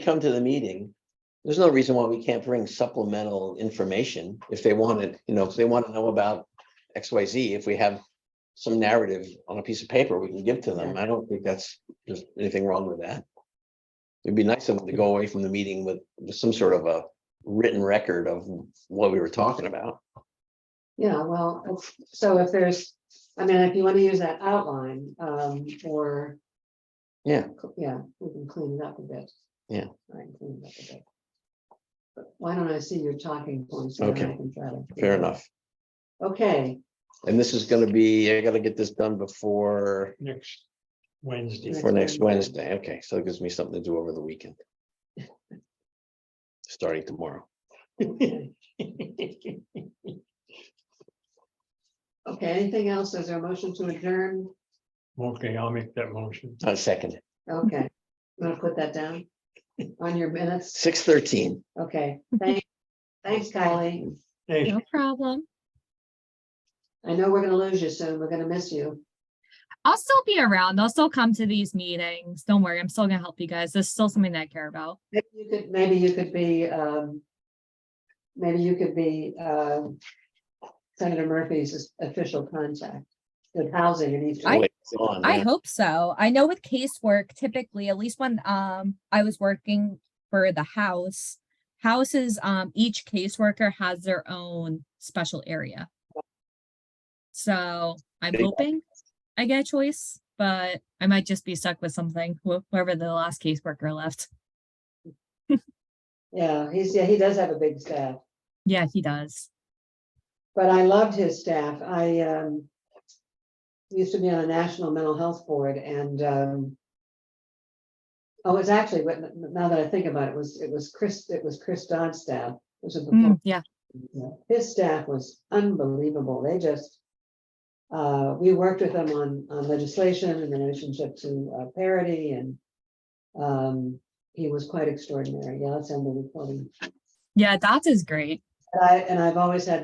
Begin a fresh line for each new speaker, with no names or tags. come to the meeting, there's no reason why we can't bring supplemental information if they want it, you know, if they want to know about X, Y, Z, if we have some narrative on a piece of paper we can give to them. I don't think that's, there's anything wrong with that. It'd be nice of them to go away from the meeting with with some sort of a written record of what we were talking about.
Yeah, well, it's- so if there's, I mean, if you want to use that outline, um, or.
Yeah.
Yeah, we can clean it up a bit.
Yeah.
Try and clean it up a bit. But Why don't I see your talking points? and then I
Okay.
can try to-
Fair enough.
Okay,
And this is gonna be, I gotta get this done before,
next Wednesday.
before next Wednesday. Okay, so it gives me something to do over the weekend. Starting tomorrow.
okay, okay, anything else? Is there a motion to adjourn?
Okay, I'll make that motion.
I Uh, second.
Okay, you want to put that down on your minutes?
Six thirteen.
Okay, thanks, thanks, Kylie.
Thanks,
No problem.
I know we're gonna lose you soon. We're gonna miss you.
I'll still be around. I'll still come to these meetings. Don't worry. I'm still gonna help you guys. This is still something that I care about.
Maybe you could, maybe you could be, um. Maybe you could be, um. Senator Murphy's official contact with housing in each.
I-
Oh, Wait, it's on,
I
yeah.
hope so. I know with casework, typically, at least when um I was working for the house, houses, um, each caseworker has their own special area. So I'm
They-
hoping I get a choice, but I might just be stuck with something, wh- whoever the last caseworker left.
Yeah, he's, yeah, he does have a big staff,
Yeah, he does.
but I loved his staff. I, um. Used to be on a national mental health board and, um. Oh, it's actually, but now that I think about it, it was, it was Chris, it was Chris Dodd's staff. It was a
Mm-hmm.
Mm, yeah.
Yeah, His staff was unbelievable. They just. Uh, we worked with them on, on legislation in relationship to uh, parity and. Um, he was quite extraordinary. Yeah, that's end of reporting.
Yeah, that is great.
And I, and I've always had